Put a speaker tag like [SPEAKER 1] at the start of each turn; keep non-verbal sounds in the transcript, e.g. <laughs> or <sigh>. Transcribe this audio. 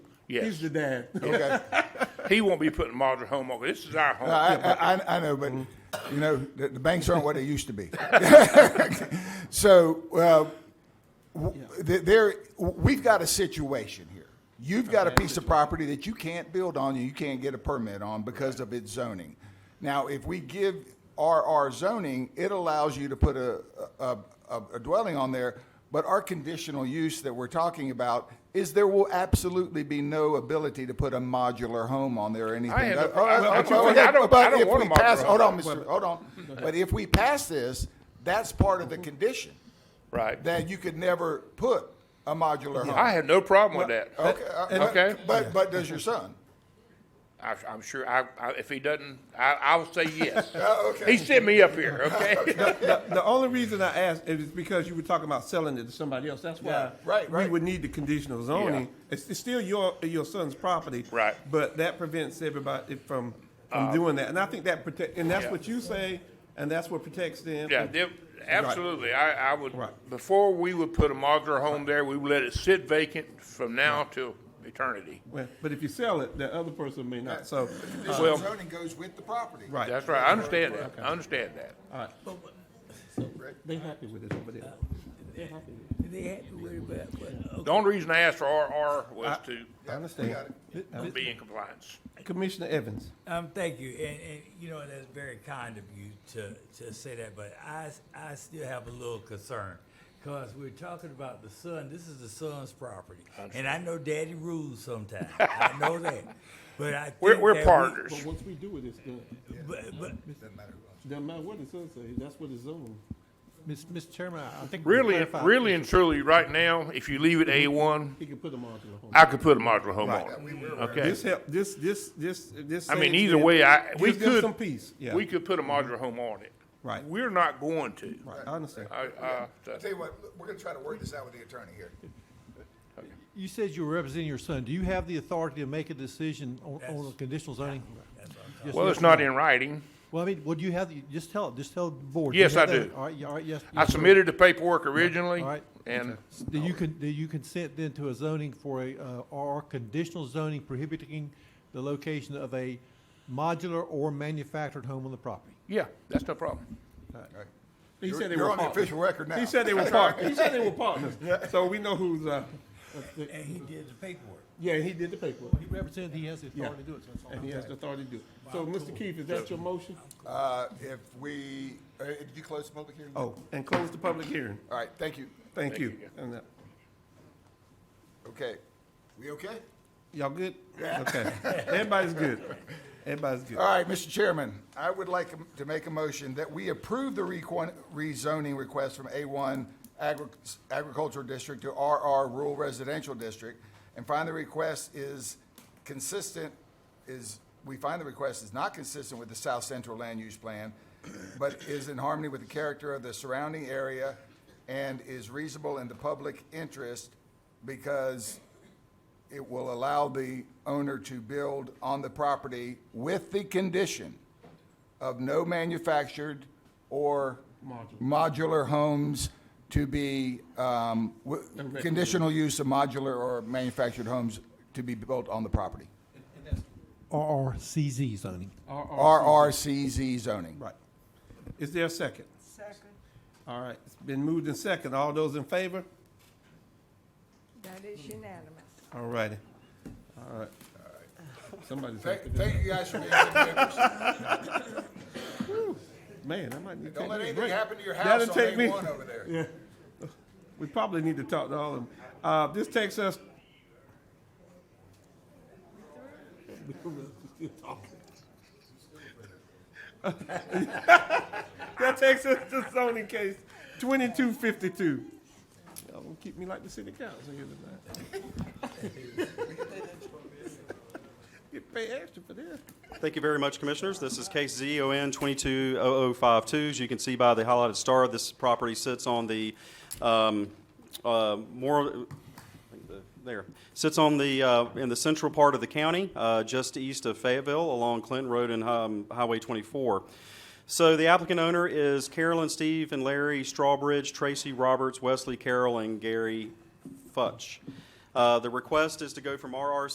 [SPEAKER 1] Yes.
[SPEAKER 2] He's the
[SPEAKER 3] <laughs>
[SPEAKER 2] dad.
[SPEAKER 4] Okay.
[SPEAKER 1] He won't be putting modular home over. This is our home.
[SPEAKER 4] No, I, I, I- I know, but you know, the, the banks aren't what they used to be. <laughs> so uh, w- th- there, we've got a situation here. You've got a piece of property that you can't build on, and you can't get a permit on because of its zoning. Now, if we give RR zoning, it allows you to put a, a, a, a dwelling on there. But our conditional use that we're talking about is there will absolutely be no ability to put a modular home on there or anything.
[SPEAKER 1] I had no
[SPEAKER 4] Uh,
[SPEAKER 1] pro-
[SPEAKER 4] uh,
[SPEAKER 1] I-
[SPEAKER 4] uh,
[SPEAKER 1] I-
[SPEAKER 4] uh,
[SPEAKER 1] I don't-
[SPEAKER 4] okay,
[SPEAKER 1] I don't
[SPEAKER 4] but if
[SPEAKER 1] want
[SPEAKER 4] we
[SPEAKER 1] a modular
[SPEAKER 4] pass-
[SPEAKER 1] home.
[SPEAKER 4] Hold on, Mr. Hold on. But if we pass this, that's part of
[SPEAKER 1] Mm-hmm.
[SPEAKER 4] the condition
[SPEAKER 1] right.
[SPEAKER 4] that you could never put a modular home.
[SPEAKER 1] I have no problem with that.
[SPEAKER 4] Okay, uh, but-
[SPEAKER 1] Okay.
[SPEAKER 4] But, but does your son?
[SPEAKER 1] I, I'm sure. I, I, if he doesn't, I, I'll say
[SPEAKER 4] <laughs>
[SPEAKER 1] yes.
[SPEAKER 4] Oh, okay.
[SPEAKER 1] He sent me up here.
[SPEAKER 4] <laughs>
[SPEAKER 1] Okay.
[SPEAKER 3] The the only reason I asked is because you were talking about selling it to somebody else. That's why.
[SPEAKER 4] right,
[SPEAKER 3] We
[SPEAKER 4] right.
[SPEAKER 3] would need the conditional zoning.
[SPEAKER 1] Yeah.
[SPEAKER 3] It's, it's still your, your son's property.
[SPEAKER 1] Right. Uh,
[SPEAKER 3] But that prevents everybody from, from doing that. And I think that protect, and that's
[SPEAKER 1] yeah.
[SPEAKER 3] what you say, and that's what protects them.
[SPEAKER 1] Yeah, they- absolutely. I, I would,
[SPEAKER 3] Right.
[SPEAKER 1] before we would put a modular home there, we would let it sit vacant from now till eternity.
[SPEAKER 3] Well, But if you sell it, the other person may not, so. uh,
[SPEAKER 1] Well-
[SPEAKER 4] zoning goes with the property.
[SPEAKER 3] Right.
[SPEAKER 1] That's right. I understand that. I understand that.
[SPEAKER 3] They happy with it over there.
[SPEAKER 5] They had to worry about, but, uh,
[SPEAKER 1] The only reason I asked for RR was to
[SPEAKER 3] I understand. Uh,
[SPEAKER 1] be in compliance.
[SPEAKER 3] Commissioner Evans,
[SPEAKER 5] um, thank you, and, and, you know, that's very kind of you to, to say that, but I, s- I still have a little concern. Cause we're talking about the son, this is the son's property, and I know daddy rules sometimes, I know that, but I think
[SPEAKER 1] We're, we're
[SPEAKER 5] that we-
[SPEAKER 1] partners.
[SPEAKER 3] once we do it, it's done.
[SPEAKER 5] But, but,
[SPEAKER 3] Doesn't matter what the son says, that's what it's on.
[SPEAKER 6] Mis- Mr. Chairman, I think. we
[SPEAKER 1] Really,
[SPEAKER 6] clarified-
[SPEAKER 1] really and truly, right now, if you leave it A1,
[SPEAKER 3] He can put them all to the home.
[SPEAKER 1] I could put a modular home on it. Okay?
[SPEAKER 3] This help, this, this, this, this.
[SPEAKER 1] I mean,
[SPEAKER 3] saves
[SPEAKER 1] either
[SPEAKER 3] them-
[SPEAKER 1] way, I, we
[SPEAKER 3] gives them
[SPEAKER 1] could,
[SPEAKER 3] Some peace, yeah.
[SPEAKER 1] we could put a modular home on it.
[SPEAKER 3] Right.
[SPEAKER 1] We're not going to.
[SPEAKER 3] Right, I understand.
[SPEAKER 4] Uh,
[SPEAKER 1] I, I,
[SPEAKER 4] Tell you what, we're gonna try to work this out with the attorney here.
[SPEAKER 6] You said you were representing your son. Do you have the authority to make a decision on, on a
[SPEAKER 5] That's-
[SPEAKER 6] conditional zoning? Yes,
[SPEAKER 1] well,
[SPEAKER 6] yes,
[SPEAKER 1] it's not
[SPEAKER 6] no.
[SPEAKER 1] in writing.
[SPEAKER 6] Well, I mean, would you have, the- just tell, just tell the board. Do
[SPEAKER 1] Yes,
[SPEAKER 6] you have
[SPEAKER 1] I do.
[SPEAKER 6] that? All right, yeah, all right, yes.
[SPEAKER 1] I
[SPEAKER 6] yes, sir.
[SPEAKER 1] submitted the paperwork originally
[SPEAKER 6] All right.
[SPEAKER 1] and
[SPEAKER 6] Do you con, do you consent then to a zoning for a, uh, or conditional zoning prohibiting the location of a modular or manufactured home on the property?
[SPEAKER 1] Yeah, that's no problem.
[SPEAKER 3] He said they
[SPEAKER 4] You're
[SPEAKER 3] were
[SPEAKER 4] on the
[SPEAKER 3] partners.
[SPEAKER 4] official record now.
[SPEAKER 3] He said
[SPEAKER 4] <laughs>
[SPEAKER 3] they were partners. He said they were partners. So we know who's, uh,
[SPEAKER 5] and he did the paperwork.
[SPEAKER 3] yeah, he did the paperwork.
[SPEAKER 6] He represented, he has the
[SPEAKER 3] Yeah.
[SPEAKER 6] authority to do it, so that's all.
[SPEAKER 3] And he has the authority to do it. So, Mr. Keith, is that your motion?
[SPEAKER 4] Uh, if we, uh, did you close the public hearing?
[SPEAKER 3] Oh, and close the public hearing.
[SPEAKER 4] All right, thank you.
[SPEAKER 3] Thank you. And, uh,
[SPEAKER 4] Okay. We okay?
[SPEAKER 3] Y'all good? Okay. Everybody's good. Everybody's good.
[SPEAKER 4] All right, Mr. Chairman, I would like to make a motion that we approve the requ- rezoning request from A1 Agri- Agricultural District to RR Rural Residential District, and find the request is consistent, is, we find the request is not consistent with the South Central Land Use Plan, but is in harmony with the character of the surrounding area and is reasonable in the public interest because it will allow the owner to build on the property with the condition of no manufactured or modular homes to be, um, w- conditional use of modular or manufactured homes to be built on the property.
[SPEAKER 6] RRCZ zoning.
[SPEAKER 4] RRCZ zoning.
[SPEAKER 3] Right. Is there a second? Second. All right, it's been moved in second. All those in favor?
[SPEAKER 7] That is unanimous.
[SPEAKER 3] All righty. All right. Somebody's.
[SPEAKER 4] Thank thank you guys for being good neighbors.
[SPEAKER 3] Man, I might need to
[SPEAKER 4] Don't
[SPEAKER 3] take
[SPEAKER 4] let
[SPEAKER 3] a
[SPEAKER 4] anything
[SPEAKER 3] break.
[SPEAKER 4] happen to your house
[SPEAKER 3] That'll
[SPEAKER 4] on
[SPEAKER 3] take me-
[SPEAKER 4] A1 over there.
[SPEAKER 3] We probably need to talk to all of them. Uh, this takes us. <laughs> That takes us to zoning case twenty-two fifty-two. Y'all gonna keep me like the city council here tonight. <laughs> Get paid extra for this.
[SPEAKER 8] Thank you very much, Commissioners. This is case ZON 220052. As you can see by the highlighted star, this property sits on the um, uh, more, I think the- there, sits on the, uh, in the central part of the county, uh, just east of Fayetteville, along Clinton Road and um, Highway 24. So the applicant owner is Carolyn, Steve, and Larry Strawbridge, Tracy Roberts, Wesley Carroll, and Gary Futch. Uh, The request is to go from RRC